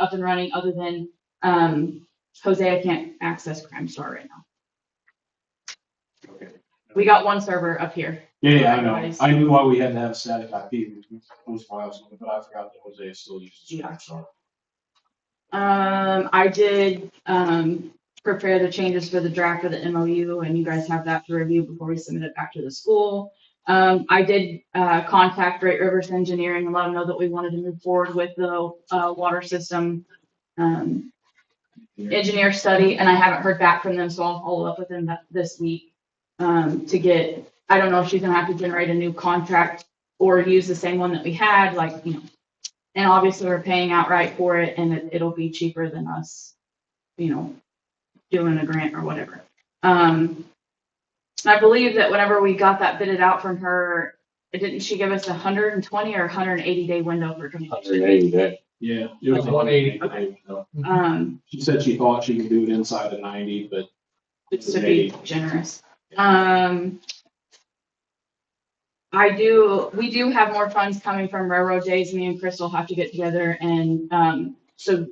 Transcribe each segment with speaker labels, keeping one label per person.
Speaker 1: up and running other than, um, Jose, I can't access Crime Star right now.
Speaker 2: Okay.
Speaker 1: We got one server up here.
Speaker 2: Yeah, yeah, I know.
Speaker 1: Otherwise-
Speaker 2: I knew why we had to have static IP, it was files, but I forgot that Jose still uses.
Speaker 1: Yeah.
Speaker 2: Samsung.
Speaker 1: Um, I did, um, prepare the changes for the draft of the MOU and you guys have that to review before we submit it back to the school. Um, I did, uh, contact Great Rivers Engineering and let them know that we wanted to move forward with the, uh, water system, um, engineer study, and I haven't heard back from them, so I'll follow up with them that- this week. Um, to get, I don't know if she's gonna have to generate a new contract or use the same one that we had, like, you know, and obviously we're paying outright for it and it, it'll be cheaper than us, you know, doing a grant or whatever. Um, I believe that whenever we got that bidded out from her, didn't she give us a hundred and twenty or hundred and eighty day window for?
Speaker 3: Hundred eighty day.
Speaker 2: Yeah. it was
Speaker 4: Like 180.
Speaker 2: Okay. No.
Speaker 1: Um,
Speaker 2: She said she thought she could do it inside of ninety, but it's
Speaker 1: to
Speaker 2: an
Speaker 1: be
Speaker 2: eighty.
Speaker 1: generous. Um. I do, we do have more funds coming from railroad days. Me and Chris will have to get together and, um, so,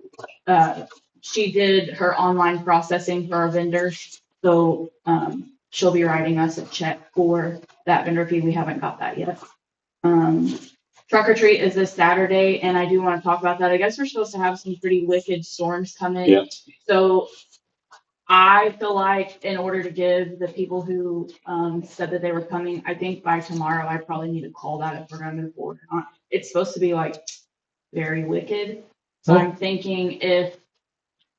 Speaker 1: uh, she did her online processing for our vendors. So, um, she'll be writing us a check for that vendor fee. We haven't got that yet. Um, truck or treat is this Saturday and I do want to talk about that. I guess we're supposed to have some pretty wicked storms coming.
Speaker 3: Yeah.
Speaker 1: So I feel like in order to give the people who um said that they were coming, I think by tomorrow, I probably need to call that if we're gonna move forward or not. It's supposed to be like very wicked, so I'm thinking if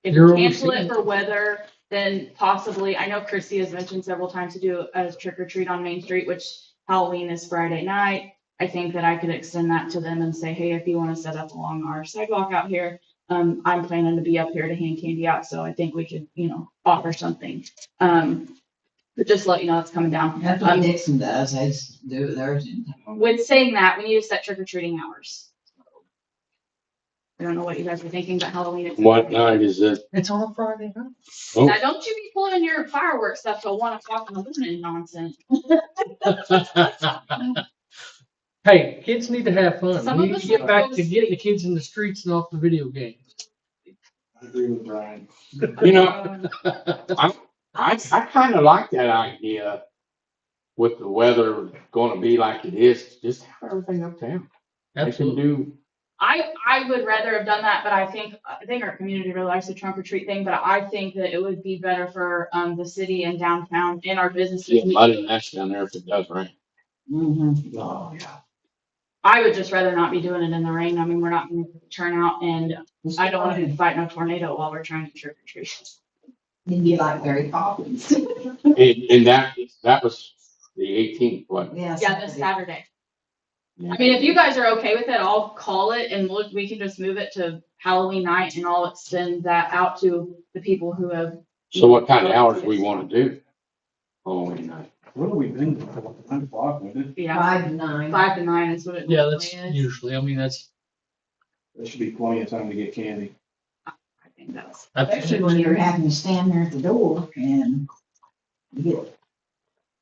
Speaker 1: if
Speaker 4: You're
Speaker 1: we cancel it
Speaker 4: overseeing.
Speaker 1: for weather, then possibly, I know Chrissy has mentioned several times to do a trick or treat on Main Street, which Halloween is Friday night. I think that I could extend that to them and say, hey, if you wanna set up along our sidewalk out here, um, I'm planning to be up here to hand candy out, so I think we could, you know, offer something. Um, but just let you know it's coming down.
Speaker 5: That's what
Speaker 1: Um,
Speaker 5: Dixon does, I just do it theirs.
Speaker 1: With saying that, we need to set trick or treating hours. I don't know what you guys were thinking, but Halloween. is-
Speaker 3: What night is it?
Speaker 4: It's on a Friday night.
Speaker 3: Oh.
Speaker 1: Now, don't you be pulling your fireworks stuff till one o'clock in the morning nonsense.
Speaker 4: Hey, kids need to have fun.
Speaker 1: Some
Speaker 4: We
Speaker 1: of
Speaker 4: need
Speaker 1: us
Speaker 4: to
Speaker 1: will
Speaker 4: get back
Speaker 1: go
Speaker 4: to
Speaker 1: to
Speaker 4: getting the
Speaker 1: sleep.
Speaker 4: kids in the streets and off the video games.
Speaker 2: I agree with Brian.
Speaker 3: You know- I, I kinda like that idea with the weather gonna be like it is, just have everything uptown. They can
Speaker 4: Absolutely.
Speaker 3: do,
Speaker 1: I, I would rather have done that, but I think, I think our community really likes the trunk or treat thing, but I think that it would be better for, um, the city and downtown and our businesses.
Speaker 3: yeah, mud and ash down there if it does rain.
Speaker 5: Mm-hmm.
Speaker 2: Oh, yeah.
Speaker 1: I would just rather not be doing it in the rain. I mean, we're not gonna turn out and I don't wanna be fighting a tornado while we're trying to trick or treat.
Speaker 5: It'd be like Mary Poppins.
Speaker 3: And, and that, that was the eighteenth, what?
Speaker 1: Yeah, this Saturday. I mean, if you guys are okay with it, I'll call it and we'll, we can just move it to Halloween night and I'll extend that out to the people who have.
Speaker 3: So what kind of hours we wanna do? Halloween night.
Speaker 2: What have we been, doing? nine o'clock, wasn't it?
Speaker 1: Yeah,
Speaker 5: Five to nine.
Speaker 1: five to nine is what it
Speaker 4: Yeah,
Speaker 1: normally
Speaker 4: that's
Speaker 1: is.
Speaker 4: usually, I mean, that's,
Speaker 2: There should be plenty of time to get candy.
Speaker 1: I think that's.
Speaker 5: Especially when you're having to stand there at the door and get,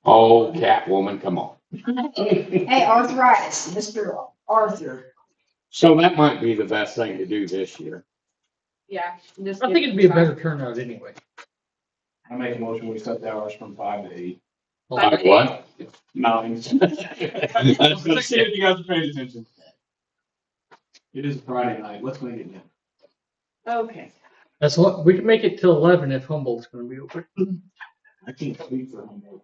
Speaker 3: Oh, Catwoman, come on.
Speaker 5: hey, arthritis, Mr. Arthur.
Speaker 3: So that might be the best thing to do this year.
Speaker 1: Yeah. just
Speaker 4: I
Speaker 1: give
Speaker 4: think
Speaker 1: it
Speaker 4: it'd be a
Speaker 1: try.
Speaker 4: better turnout anyway.
Speaker 2: I make a motion, we set the hours from five to eight.
Speaker 1: Five
Speaker 3: Like
Speaker 1: to
Speaker 3: what?
Speaker 2: Mountains.
Speaker 3: I was gonna say,
Speaker 2: you guys are paying attention. It is Friday night, let's make it now.
Speaker 1: Okay.
Speaker 4: That's what, we can make it till eleven if Humboldt's gonna be open.
Speaker 2: I can't sleep for homework.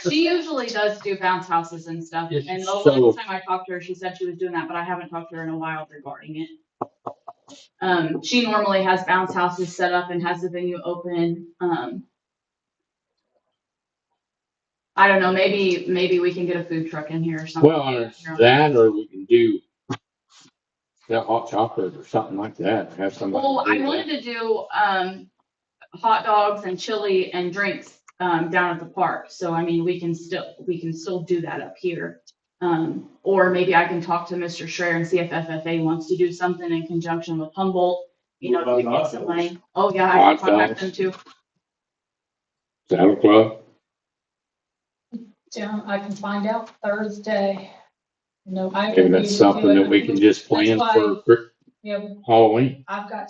Speaker 1: She usually does do bounce houses and stuff.
Speaker 4: Yes,
Speaker 1: And the
Speaker 3: so-
Speaker 1: last time I talked to her, she said she was doing that, but I haven't talked to her in a while regarding it. Um, she normally has bounce houses set up and has the venue open, um. I don't know, maybe, maybe we can get a food truck in here or something.
Speaker 3: Well, or that, or we can do that hot chocolate or something like that, have somebody.
Speaker 1: Well, I
Speaker 3: do that.
Speaker 1: wanted to do, um, hot dogs and chili and drinks, um, down at the park. So I mean, we can still, we can still do that up here. Um, or maybe I can talk to Mr. Schreier and see if FFA wants to do something in conjunction with Humboldt, you know,
Speaker 2: What
Speaker 1: to
Speaker 2: about
Speaker 1: get
Speaker 2: hot
Speaker 1: some
Speaker 2: dogs?
Speaker 1: money. Oh, yeah, I can
Speaker 3: Hot
Speaker 1: contact
Speaker 3: dogs.
Speaker 1: them too.
Speaker 3: Saddle Club,
Speaker 6: Yeah, I can find out Thursday. No, I.
Speaker 3: maybe that's something that we can just plan
Speaker 6: That's why-
Speaker 3: for,
Speaker 6: Yeah,
Speaker 3: Halloween.
Speaker 6: I've got